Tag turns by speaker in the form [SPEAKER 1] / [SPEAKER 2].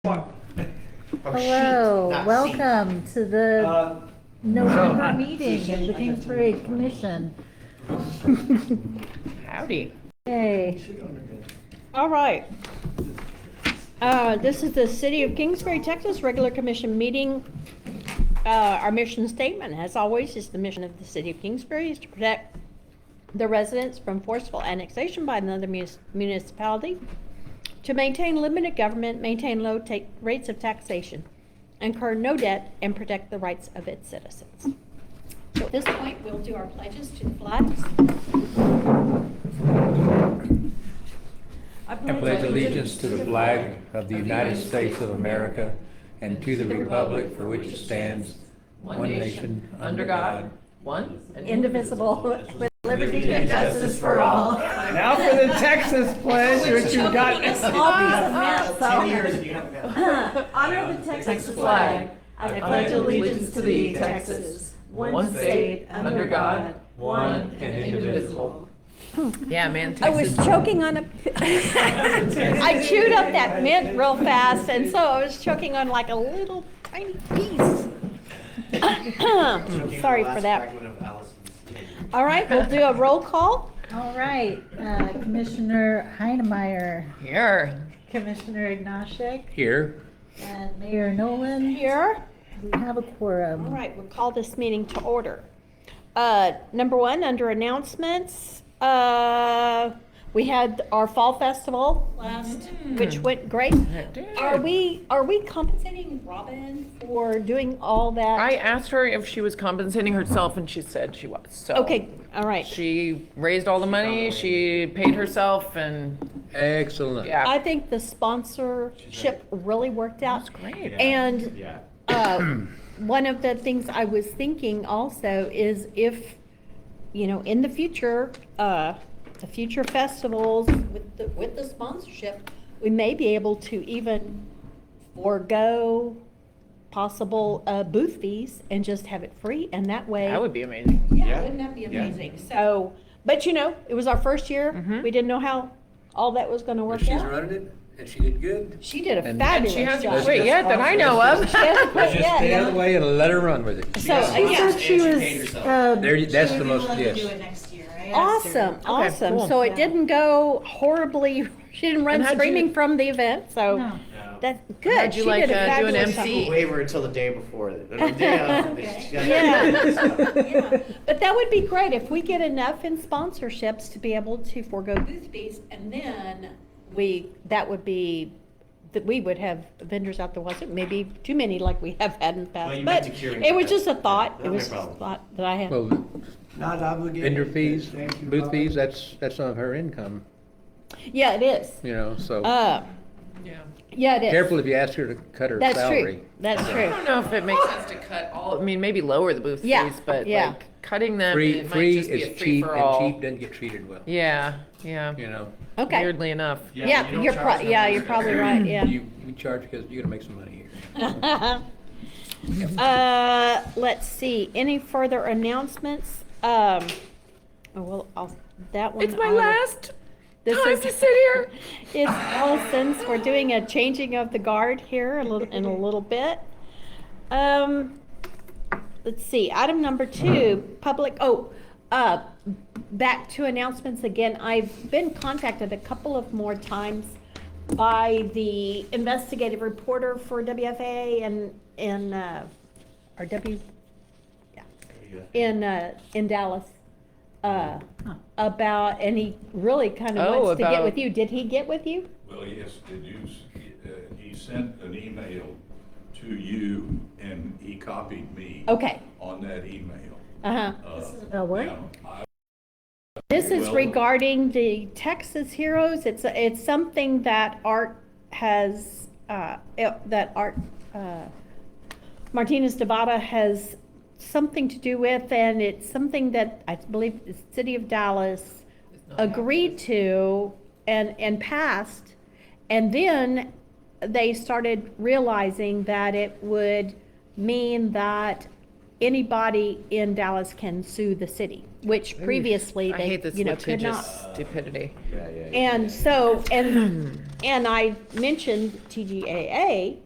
[SPEAKER 1] Oh,
[SPEAKER 2] Oh,
[SPEAKER 3] Hello, welcome to the
[SPEAKER 1] Uh,
[SPEAKER 3] November meeting of the Kingsbury Commission.
[SPEAKER 4] Howdy.
[SPEAKER 3] Hey,
[SPEAKER 4] All right. Uh, This is the City of Kingsbury, Texas Regular Commission meeting. Uh, Our mission statement, as always, is the mission of the City of Kingsbury is to protect the residents from forceful annexation by another munis- municipality, to maintain limited government, maintain low ta- rates of taxation, incur no debt, and protect the rights of its citizens. So at this point, we'll do our pledges to the flags.
[SPEAKER 5] I pledge allegiance to the flag of the United States of America and to the republic for which it stands, one nation, under God,
[SPEAKER 6] one and
[SPEAKER 3] indivisible with liberty and justice for all.
[SPEAKER 1] Now for the Texas pledge, which you got.
[SPEAKER 3] Honor the Texas flag. I
[SPEAKER 6] pledge allegiance to thee, Texas,
[SPEAKER 3] one
[SPEAKER 6] state, under God, one and indivisible.
[SPEAKER 5] Yeah, man,
[SPEAKER 4] I was choking on a. I chewed up that mint real fast, and so I was choking on like a little tiny piece. Sorry for that. All right, we'll do a roll call.
[SPEAKER 3] All right, uh, Commissioner Heinemeier,
[SPEAKER 5] Here.
[SPEAKER 3] Commissioner Ignashek,
[SPEAKER 5] Here.
[SPEAKER 3] and Mayor Nolan.
[SPEAKER 4] Here.
[SPEAKER 3] We have a
[SPEAKER 4] All
[SPEAKER 3] quorum.
[SPEAKER 4] right, we'll call this meeting to order. Uh, Number one, under announcements, uh, we had our Fall Festival last, which went great. Are we, are we compensating Robin for doing all that?
[SPEAKER 6] I asked her if she was compensating herself and she said she was, so.
[SPEAKER 4] Okay, all right.
[SPEAKER 6] She raised all the money, she paid herself and,
[SPEAKER 5] Excellent.
[SPEAKER 6] yeah,
[SPEAKER 4] I think the sponsorship really worked out.
[SPEAKER 6] that's great.
[SPEAKER 4] And
[SPEAKER 1] Yeah.
[SPEAKER 4] uh, one of the things I was thinking also is if, you know, in the future, uh, the future festivals with the, with the sponsorship, we may be able to even forego possible uh, booth fees and just have it free, and that way.
[SPEAKER 6] That would be amazing.
[SPEAKER 4] Yeah,
[SPEAKER 1] Yeah.
[SPEAKER 4] wouldn't that be
[SPEAKER 1] Yeah.
[SPEAKER 4] amazing? So, but you know, it was our first year.
[SPEAKER 6] Mhm.
[SPEAKER 4] We didn't know how all that was gonna work
[SPEAKER 7] She's
[SPEAKER 4] out.
[SPEAKER 7] running it, and she did good.
[SPEAKER 4] She did a
[SPEAKER 5] And-
[SPEAKER 6] And
[SPEAKER 4] fabulous
[SPEAKER 6] she hasn't
[SPEAKER 4] job.
[SPEAKER 5] quit
[SPEAKER 6] quit yet that I know of.
[SPEAKER 4] She hasn't quit
[SPEAKER 5] Just
[SPEAKER 4] yet,
[SPEAKER 5] stay out of
[SPEAKER 4] yeah.
[SPEAKER 5] the way and let her run with it.
[SPEAKER 4] So, uh,
[SPEAKER 3] She
[SPEAKER 4] yeah, um,
[SPEAKER 3] said she was, uh,
[SPEAKER 5] There, you- that's the most,
[SPEAKER 2] Do
[SPEAKER 5] yes.
[SPEAKER 2] it next year, right?
[SPEAKER 4] awesome, awesome.
[SPEAKER 6] cool.
[SPEAKER 4] So it didn't go horribly. She didn't run
[SPEAKER 6] And how'd you-
[SPEAKER 4] screaming from the event. So
[SPEAKER 3] no.
[SPEAKER 4] that's good.
[SPEAKER 6] How'd you
[SPEAKER 4] she
[SPEAKER 6] like,
[SPEAKER 4] did a
[SPEAKER 6] uh, do an
[SPEAKER 4] fabulous job.
[SPEAKER 6] MC?
[SPEAKER 8] Waiver until the day before. The day of.
[SPEAKER 4] Yeah. But that would be great if we get enough in sponsorships to be able to forego booth fees and then we, that would be, that we would have vendors out there wasn't maybe too many like we have had in the
[SPEAKER 8] Well,
[SPEAKER 4] past.
[SPEAKER 8] you
[SPEAKER 4] But
[SPEAKER 8] have to cure
[SPEAKER 4] it was
[SPEAKER 8] that.
[SPEAKER 4] just a thought.
[SPEAKER 8] Yeah,
[SPEAKER 4] It
[SPEAKER 8] not
[SPEAKER 4] was
[SPEAKER 8] my
[SPEAKER 4] just a
[SPEAKER 8] problem.
[SPEAKER 4] thought that I had.
[SPEAKER 5] Well,
[SPEAKER 1] Not obligated.
[SPEAKER 5] vendor fees,
[SPEAKER 1] Thank you,
[SPEAKER 5] booth
[SPEAKER 1] Bob.
[SPEAKER 5] fees, that's, that's some of her income,
[SPEAKER 4] Yeah, it is.
[SPEAKER 5] you know, so
[SPEAKER 4] Uh,
[SPEAKER 6] Yeah.
[SPEAKER 4] yeah, it is.
[SPEAKER 5] careful if you ask her to cut her
[SPEAKER 4] That's
[SPEAKER 5] salary.
[SPEAKER 4] true. That's
[SPEAKER 6] I
[SPEAKER 4] true.
[SPEAKER 6] don't know if it makes sense to cut all, I mean, maybe lower the booth
[SPEAKER 4] Yeah,
[SPEAKER 6] fees, but
[SPEAKER 4] yeah.
[SPEAKER 6] like cutting them,
[SPEAKER 5] Free,
[SPEAKER 6] Um, it might
[SPEAKER 5] free
[SPEAKER 6] just be a
[SPEAKER 5] is cheap and
[SPEAKER 6] free-for-all.
[SPEAKER 5] cheap doesn't get treated well,
[SPEAKER 6] Yeah, yeah.
[SPEAKER 5] you know?
[SPEAKER 4] Okay.
[SPEAKER 6] Weirdly enough.
[SPEAKER 4] Yeah, you're pro, yeah, you're probably right. Yeah.
[SPEAKER 5] You, you charge because you're gonna make some money here.
[SPEAKER 4] Uh, let's see, any further announcements? Um, oh, well, I'll, that one.
[SPEAKER 6] It's my
[SPEAKER 4] I'll-
[SPEAKER 6] last
[SPEAKER 4] This
[SPEAKER 6] time
[SPEAKER 4] is-
[SPEAKER 6] to sit here.
[SPEAKER 4] It's all since we're doing a changing of the guard here a little, in a little bit. Um, let's see, item number two, public, oh, uh, back to announcements again. I've been contacted a couple of more times by the investigative reporter for WFA and, and, uh, or W, yeah, in, uh, in Dallas. Uh, about, and he really kind of
[SPEAKER 6] Oh,
[SPEAKER 4] wants to get
[SPEAKER 6] about-
[SPEAKER 4] with you. Did he get with you?
[SPEAKER 9] Well, yes, did you, s- uh, he sent an email to you and he copied me
[SPEAKER 4] Okay,
[SPEAKER 9] on that email.
[SPEAKER 4] uh-huh.
[SPEAKER 3] Oh, what?
[SPEAKER 9] Now, I-
[SPEAKER 4] This is
[SPEAKER 9] Well-
[SPEAKER 4] regarding the Texas Heroes. It's, it's something that Art has, uh, it- that Art, uh, Martinez Devada has something to do with, and it's something that I believe the city of Dallas agreed to and, and passed. And then they started realizing that it would mean that anybody in Dallas can sue the city, which previously
[SPEAKER 6] I
[SPEAKER 4] they,
[SPEAKER 6] hate this
[SPEAKER 4] you know, could
[SPEAKER 6] litigious
[SPEAKER 4] not.
[SPEAKER 6] stupidity.
[SPEAKER 4] And so, and And I mentioned TGAA